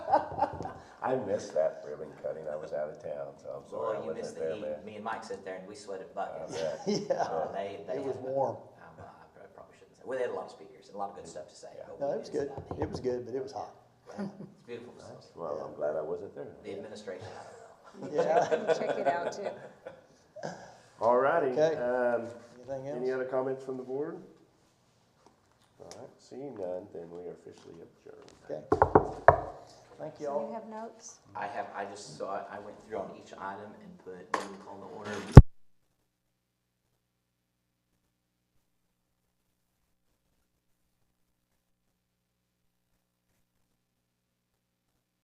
I missed that ribbon cutting, I was out of town, so I'm sorry I Well, you missed wasn't the there, man. heat. Me and Mike sit there and we sweated buckets. I bet. Yeah, Uh, They, they. it was had- warm. um, uh, I prob- probably shouldn't say. Well, they had a lot of speakers and a lot of good stuff to say. Yeah. but No, we it was missed good. out the It was good, but it was hot. heat. It's beautiful facility. Well, I'm glad I wasn't there. The administration, I don't know. Yeah. Check it out too. All righty, Okay. um, Anything else? any other comments from the board? All right, seeing none, then we are officially adjourned. Okay. Thank you Do all. you have notes? I have, I just saw, it. I went through on each item and put, on the order